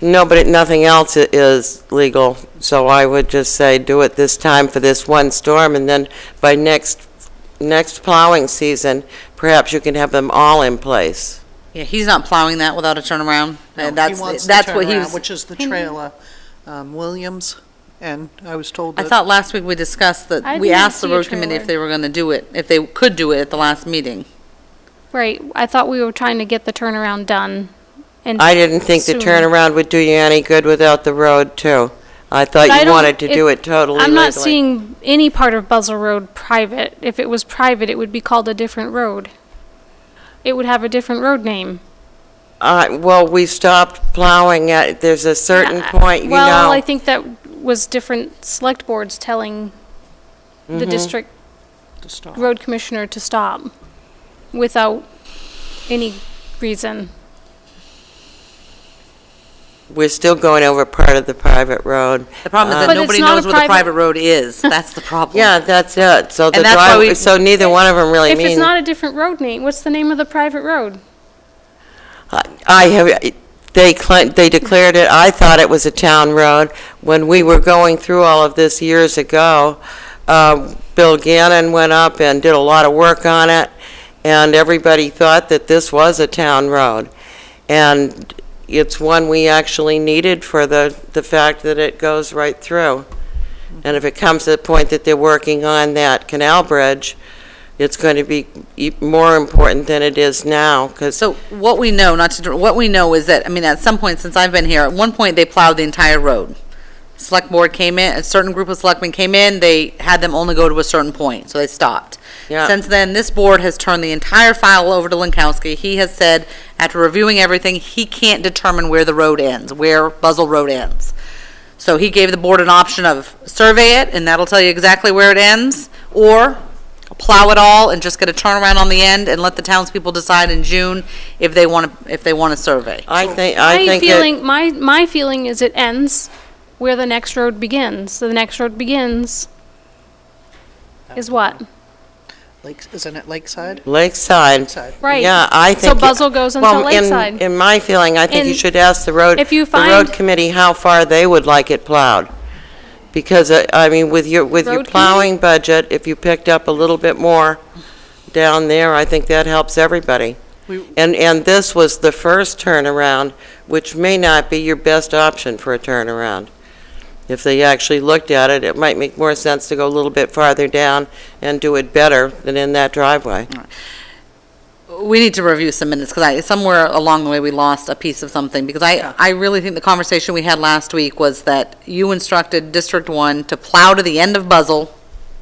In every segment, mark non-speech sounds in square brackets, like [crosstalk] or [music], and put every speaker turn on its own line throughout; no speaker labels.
No, but it- nothing else i- is legal, so I would just say do it this time for this one storm, and then by next, next plowing season, perhaps you can have them all in place.
Mm-hmm.
Yeah, he's not plowing that without a turnaround.
No,
Uh,
he
That's,
wants the
that's what he
turnaround,
was,
Which is the
Hmm.
trailer, um, Williams, and I was told
I
that.
thought last week we discussed
I
that, we
didn't
asked the
see a
road committee if
trailer.
they were gonna do it, if they could do it at the last meeting.
Right, I thought we were trying to get the turnaround done. and
I didn't think the
soon.
turnaround would do you any good without the road, too. I
But I
thought you
don't-
wanted to do it totally
I'm not
legally.
seeing any part of Buzzell Road private. If it was private, it would be called a different road. It would have a different road name.
Uh, well, we stopped plowing at, there's a certain point, you know.
Uh, Well, I think that was different select boards telling the
Mm-hmm.
district
to stop.
road commissioner to stop without any reason.
We're still going over part of the private road.
The problem is
Uh, But
that
it's
nobody
not
knows
a
where the
private-
private road
[laughs]
is. That's the problem.
Yeah, that's it, so the
And that's why we-
drive, so neither one of them really
If
mean.
it's not a different road name, what's the name of the private road?
I have, they claimed, they declared it, I thought it was a town road. When we were going through all of this years ago, um, Bill Gannon went up and did a lot of work on it, and everybody thought that this was a town road. And it's one we actually needed for the, the fact that it goes right through. And if it comes to the point that they're working on that canal bridge, it's going to be e- more important than it is now, because
So what we know, not to, what we know is that, I mean, at some point since I've been here, at one point they plowed the entire road. Select board came in, a certain group of selectmen came in, they had them only go to a certain point, so they stopped.
Yeah.
Since then, this board has turned the entire file over to Lankowski. He has said, after reviewing everything, he can't determine where the road ends, where Buzzell Road ends. So he gave the board an option of survey it, and that'll tell you exactly where it ends, or plow it all and just get a turnaround on the end and let the townspeople decide in June if they want to, if they want to survey.
I think, I
My
think
feeling,
it,
my, my feeling is it ends where the next road begins. So the next road begins is what?
Lakes, isn't it Lakeside?
Lakeside.
Lakeside.
Right.
Yeah, I
So
think. it-
Buzzell goes into
well, in-
Lakeside.
In my feeling, I think you
And
should ask the road.
if you
The road
find-
committee how far they would like it plowed. Because, uh, I mean, with your, with your
Road committee?
plowing budget, if you picked up a little bit more down there, I think that helps everybody.
We-
And, and this was the first turnaround, which may not be your best option for a turnaround. If they actually looked at it, it might make more sense to go a little bit farther down and do it better than in that driveway.
We need to review some minutes because I, somewhere along the way, we lost a piece of something because I, I really think the conversation we had last week was that you instructed District One to plow to the end of Buzzell,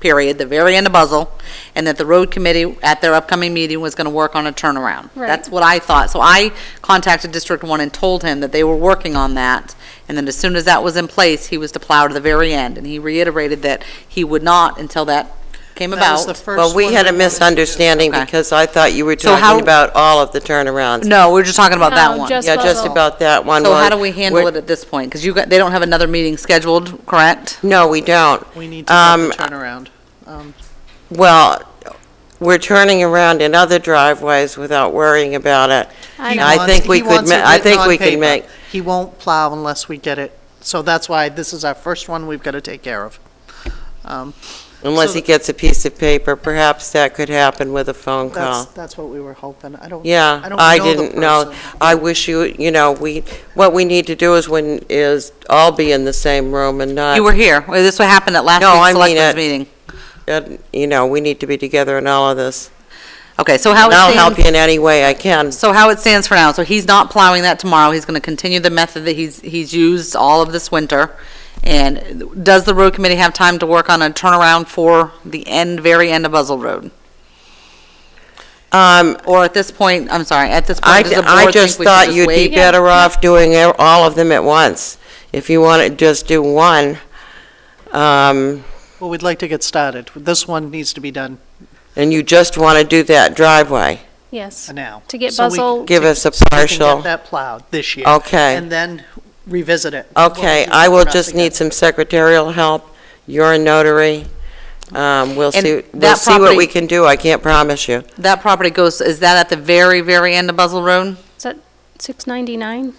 period, the very end of Buzzell, and that the road committee at their upcoming meeting was going to work on a turnaround.
Right.
That's what I thought. So I contacted District One and told him that they were working on that. And then as soon as that was in place, he was to plow to the very end. And he reiterated that he would not until that came
That was the
about.
first
Well, we
one
had a
wanted to do.
misunderstanding
Okay.
because I thought you were
So how-
talking about all of the turnarounds.
No, we were just talking about that
No,
one.
just
Yeah, just
Buzzell.
about that one.
So how
where-
do we handle
where-
it at this point? Because you got, they don't have another meeting scheduled, correct?
No, we don't.
We need to get
Um,
the turnaround. Um,
Well, we're turning around in other driveways without worrying about it.
I
he
know.
I
wants-
think we
he
could
wants
ma-
it
I
written
think
on
we could
paper.
make-
He won't plow unless we get it, so that's why this is our first one we've got to take care of. Um,
Unless
So
he
the-
gets a piece of paper, perhaps that could happen with a phone
That's,
call.
that's what we were hoping. I don't.
Yeah,
don't
I
know the
didn't know.
person.
I wish you, you know, we, what we need to do is when, is all be in the same room and not.
You were here. Well, This what happened at last
No, I
week's
mean
selectmen's
it.
meeting.
and, uh, You know, we need to be together in all of this.
Okay, so how
And
it
I'll help you
stands,
in any way I can.
so how it stands for now, so he's not plowing that tomorrow. He's going to continue the method that he's, he's used all of this winter. And does the road committee have time to work on a turnaround for the end, very end of Buzzell Road?
Um,
Or at this point, I'm sorry, at this
I,
point, does the
I
board
just
think we should
thought
just
you'd be
wait?
better off doing e- all of them at once. If you want to just do one, um,
Well, we'd like to get started. This one needs to be done
and you just want to do that driveway,
Yes.
now.
To get
So we-
Buzzell,
give us a
so we can
partial.
get that plowed this year.
Okay.
And then revisit it.
Okay, I will just need some secretarial help. You're a notary. Um, we'll
And
see, we'll
that
see what we
property-
can do. I can't promise you.
That property goes, is that at the very, very end of Buzzell Road?
is that 699?